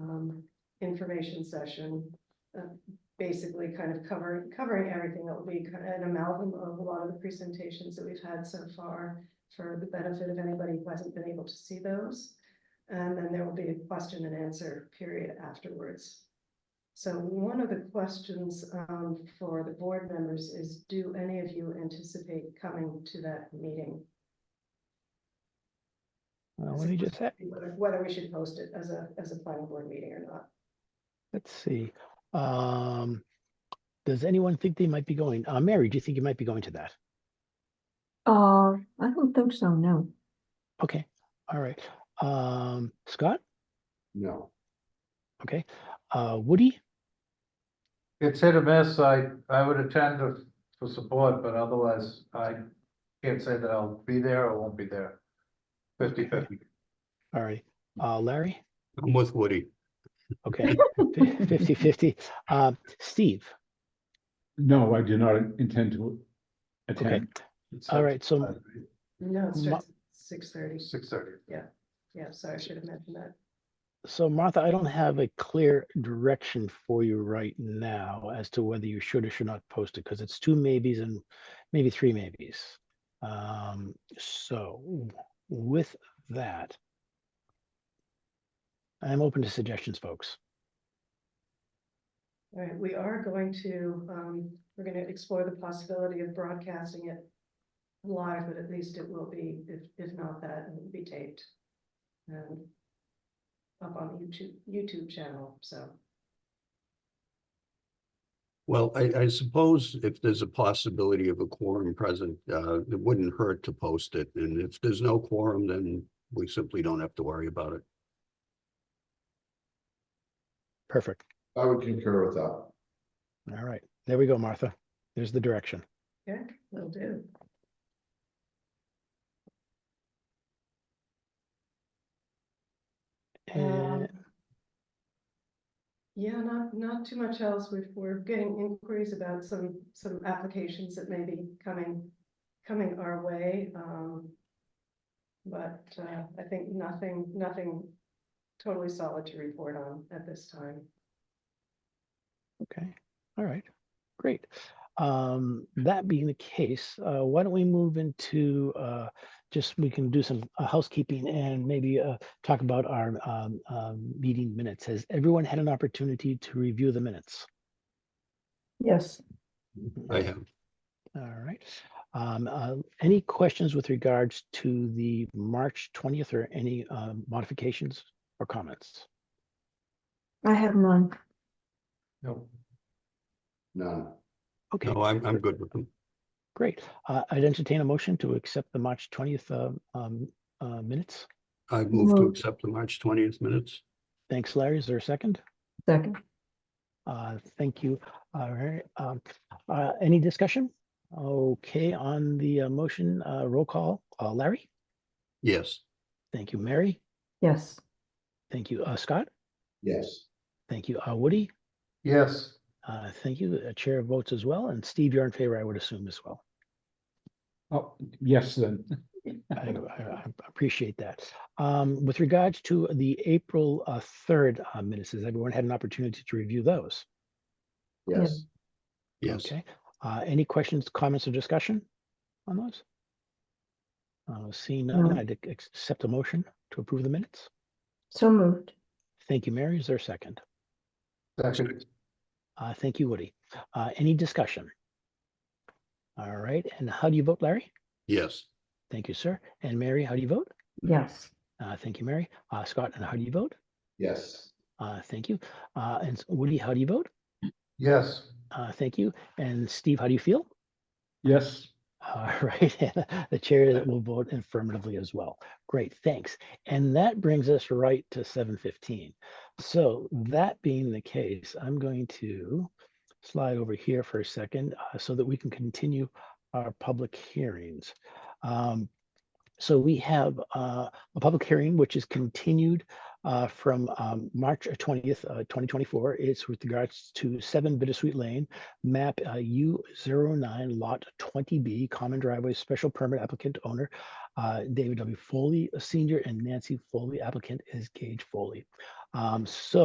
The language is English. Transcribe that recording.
um, information session. uh, Basically kind of covering, covering everything that will be kind of an amalgam of a lot of the presentations that we've had so far. For the benefit of anybody who hasn't been able to see those. And then there will be a question and answer period afterwards. So one of the questions um for the board members is, do any of you anticipate coming to that meeting? Uh, Let me just, ha- Whether whether we should post it as a, as a planning board meeting or not. let's see. Um, does anyone think they might be going? Uh, Mary, do you think you might be going to that? Uh, I don't think so, no. Okay, all right. Um, Scott? No. Okay. Uh, Woody? It's hit or miss. I, I would attend if- for support, but otherwise I can't say that I'll be there or won't be there. Fifty fifty. All right. Uh, Larry? I'm with Woody. Okay, fifty fifty. Uh, Steve? No, I do not intend to Okay, attend. uh, all right, so, No, it Ma- starts at six thirty. Six thirty. Yeah, sorry, I should have mentioned that. so Martha, I don't have a clear direction for you right now as to whether you should or should not post it, because it's two maybes and maybe three maybes. Um, so w- with that, I'm open to suggestions, folks. All right, we are going to, um, we're gonna explore the possibility of broadcasting it live, but at least it will be, if, if not that, it will be taped. And up on the YouTube, YouTube channel, so. Well, I, I suppose if there's a possibility of a quorum present, uh, it wouldn't hurt to post it. And if there's no quorum, then we simply don't have to worry about it. Perfect. I would concur with that. All right, there we go, Martha. There's the direction. Yeah, will do. And, Um, Yeah, not, not too much else. We've, we're getting inquiries about some, some applications that may be coming, coming our way. Um. But, uh, I think nothing, nothing totally solid to report on at this time. okay, all right, great. Um, that being the case, uh, why don't we move into, uh, just, we can do some uh, housekeeping and maybe, uh, talk about our, um, um, meeting minutes. Has everyone had an opportunity to review the minutes? Yes, I have, All right. Um, uh, any questions with regards to the March twentieth or any, um, modifications or comments? I have none. No. None. Okay. no, I'm, I'm good with them. Great. Uh, I'd entertain a motion to accept the March twentieth, um, um, uh, minutes. I've moved to Moved. accept the March twentieth minutes. Thanks, Larry. Is there a second? Second, Uh, thank you. All right. Um, uh, any discussion? Okay, on the uh, motion, uh, roll call, uh, Larry. Yes, Thank you, Mary. yes, Thank you, uh, Scott. Yes, Thank you, uh, Woody. Yes, Uh, thank you. The chair votes as well. And Steve, you're in favor, I would assume as well. Oh, yes, then. I, I I appreciate that. Um, with regards to the April, uh, third, uh, minutes, has everyone had an opportunity to review those? yes, yes. Okay, uh, any questions, comments or discussion on those? Uh, seeing none, No. I'd ac- accept a motion to approve the minutes. so moved, Thank you, Mary. Is there a second? second, Uh, thank you, Woody. Uh, any discussion? All right, and how do you vote, Larry? Yes, Thank you, sir. And Mary, how do you vote? yes, Uh, thank you, Mary. Uh, Scott, and how do you vote? yes, Uh, thank you. Uh, and s- Woody, how do you vote? yes, Uh, thank you. And Steve, how do you feel? Yes, All Uh, right, and the chair will vote affirmatively as well. Great, thanks. And that brings us right to seven fifteen. So that being the case, I'm going to slide over here for a second uh, so that we can continue our public hearings. Um, So we have uh, a public hearing which is continued uh, from um, March twentieth, uh, twenty twenty-four. It's with regards to seven Bittersweet Lane map uh, U 9 lot twenty B common driveway special permit applicant owner uh, David W Foley uh, Senior and Nancy Foley applicant is Gage Foley. Um, So